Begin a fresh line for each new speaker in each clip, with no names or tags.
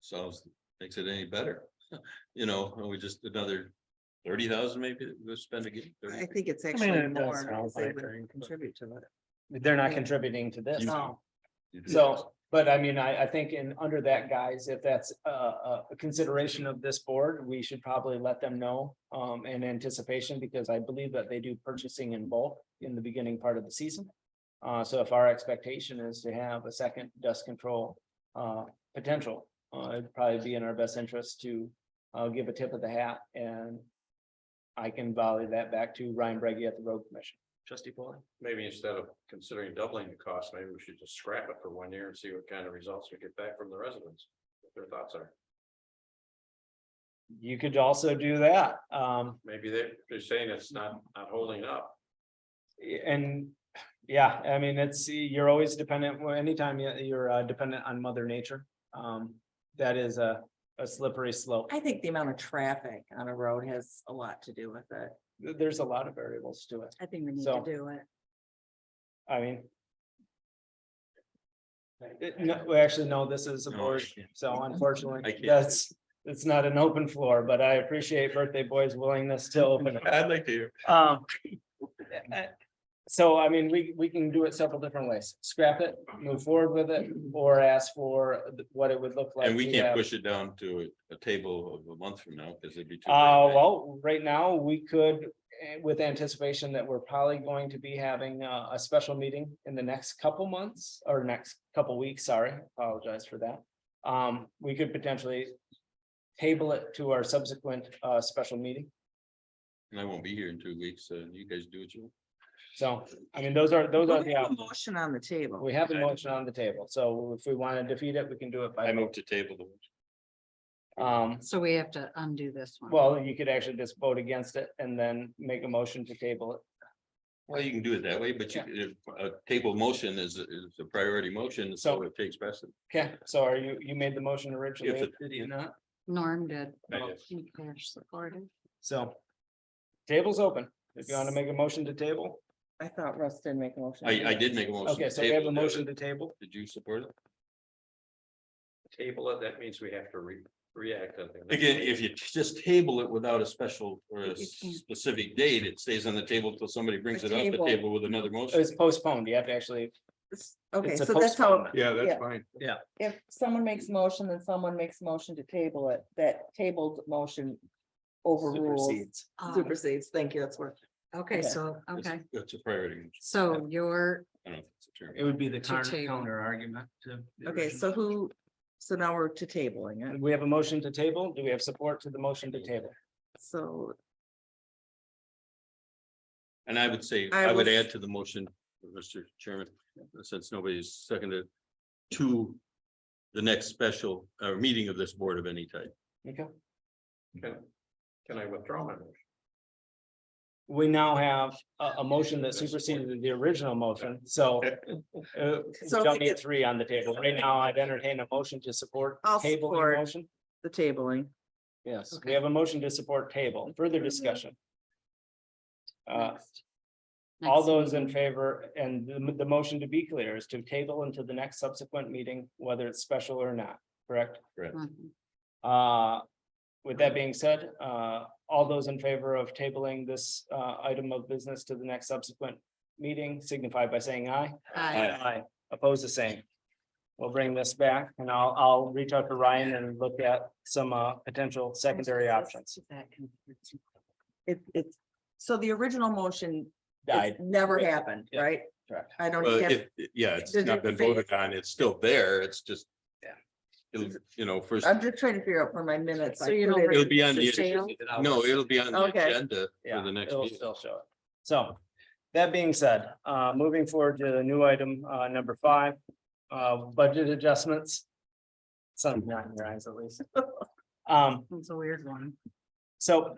sounds, makes it any better. You know, are we just another thirty thousand maybe that we'll spend again.
I think it's
mean,
actually
it does
more
sound
because they
like
would
they're-
contribute to it.
They're not contributing to this.
You-
No,
So, but I mean, I, I think in, under that, guys, if that's a, a a consideration of this board, we should probably let them know. Um, in anticipation, because I believe that they do purchasing in bulk in the beginning part of the season. Uh, so if our expectation is to have a second dust control, uh, potential, uh, it'd probably be in our best interest to. Uh, give a tip of the hat and. I can volley that back to Ryan Breggy at the road commission. Trustee Paul.
Maybe instead of considering doubling the cost, maybe we should just scrap it for one year and see what kind of results we get back from the residents. What Their thoughts are,
You could also do that. Um,
maybe they're, they're saying it's not, not holding up.
And, yeah, I mean, it's, you're always dependent, well, anytime you- you're uh, dependent on mother nature. Um, that is a, a slippery slope.
I think the amount of traffic on a road has a lot to do with it.
There's a lot of variables to it.
I think we need to
So-
do it.
I mean. it- no, well, actually, no, this is a
No, I
board,
can't.
so
Oh, I
unfortunately,
can't.
that's, it's not an open floor, but I appreciate Birthday Boy's willingness to open it.
I'd like to hear.
Um. So I mean, we, we can do it several different ways, scrap it, move forward with it, or ask for th- what it would look like.
And we
to
can't
have-
push it down to a, a table of a month from now, because it'd be too. late,
Uh,
right?
well, right now, we could, eh, with anticipation that we're probably going to be having a, a special meeting in the next couple months or next couple weeks, sorry, apologize for that. Um, we could potentially table it to our subsequent, uh, special meeting.
And I won't be here in two weeks, so you guys do what you want.
So, I mean, those are, those
Well,
are
We
the.
have a
options.
motion on the table.
We have a
Okay.
motion on the table, so if we want to defeat it, we can do it
I
by,
move to table the.
um,
So we have to undo this one.
well, you could actually just vote against it and then make a motion to table it.
Well, you can do it that way, but you, if a table motion is, is a priority motion, so
So-
it takes precedent.
Okay, so are you, you made the motion originally,
it-
did you not?
Norm did.
I did.
And Cash supported.
So. Table's open, if you want to make a motion to table,
I thought Russ did make a motion.
I, I did make a motion.
okay,
to
so we have
table
a
it.
motion to table,
Did you support it?
Table it, that means we have to re, react. I think.
Again, if you just table it without a special or a
You can't.
specific date, it stays on the table till somebody brings
A
it off the
table.
table with another motion.
it's postponed, you have to actually,
It's- Okay,
It's a
so that's how,
postponement.
Yeah,
that's Yeah.
fine.
if someone makes a motion, then someone makes a motion to table it, that tabled motion overrules,
supersedes.
Ah,
supersedes, thank you, that's where.
Okay,
okay.
so,
It's-
okay,
It's a priority.
so you're,
I don't know if it's a term.
It would be the
To
counter,
table.
counter argument to. the
Okay,
original.
so who, so now we're to tabling it,
We have a motion to table, do we have support to the motion to table?
so
And I would say,
I
I would
will s-
add to the motion, Mr. Chairman, since nobody's seconded to the next special uh meeting of this board of any type.
Okay.
Can I withdraw my motion?
we now have a, a motion that superseded the original motion, so. uh,
So
We
if
don't
we
need
could-
three on the table. Right now, I'd entertain a motion to support.
I'll
table
support.
motion.
the tabling.
Yes, we
Okay.
have a motion to support table. Further discussion. Uh,
next-
all
next
those in
meeting.
favor, and the, the motion to be clear is to table into the next subsequent meeting, whether it's special or not, correct?
Mhm.
Uh, with that being said, uh, all those in favor of tabling this, uh, item of business to the next subsequent meeting signify by saying aye.
Aye.
Aye. Oppose the same. We'll bring this back and I'll, I'll reach out to Ryan and look at some, uh, potential secondary options.
That confused me.
It, it's, so the original motion it's
Died.
never
Yeah.
happened,
Yeah.
right?
Correct.
I don't
Well,
have,
if, yeah, it's
Does
not
it
been
fit?
voted on. It's still there. It's just.
Yeah.
It'll, you know, first,
I'm just trying to figure out for my minutes. I
So you
put
don't
it-
it'll be on
For
the,
sale?
no, it'll be on the
Okay.
agenda for
Yeah,
the next
it'll
meeting.
still show it. So, that being said, uh, moving forward to the new item, uh, number five, uh, budget adjustments. Something
Hmm.
not in your eyes at least. Um,
It's a weird one.
so.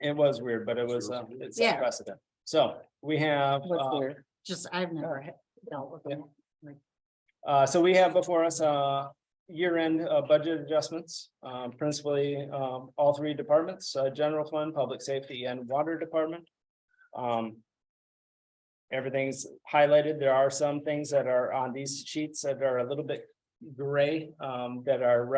It was weird, but it was, uh, it's
Yeah.
precedent. So we have,
What's
uh,
weird?
Just, I've never had dealt with
Yeah.
it.
Uh, so we have before us, uh, year-end, uh, budget adjustments, um, principally, um, all three departments, uh, general fund, public safety and water department. Um. Everything's highlighted. There are some things that are on these sheets that are a little bit gray, um, that are